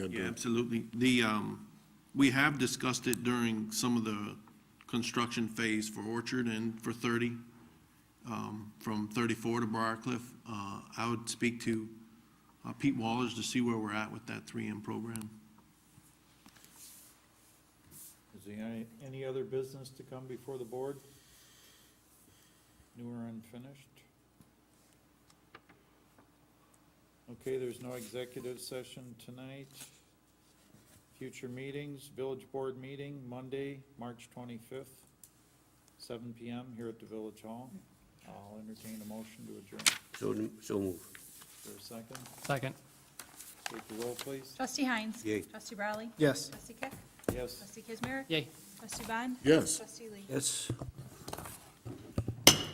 Good Yeah, deal. absolutely. The, um, we have discussed it during some of the construction phase for Orchard and for thirty, um, from thirty-four to Briarcliff. Uh, I would speak to uh, Pete Wallers to see where we're at with that three M program. Is there any, any other business to come before the board? New or unfinished? Okay, there's no executive session tonight. Future meetings, village board meeting, Monday, March twenty-fifth, seven PM here at the village hall. I'll entertain a motion to adjourn. So, so move. Is there a second? Second. Take the roll, please. Trustee Heinz. Yay. Trustee Brawley. Yes. Trustee Keck. Yes. Trustee Kazmir. Yay. Trustee Bond. Yes. Trustee Lee. Yes.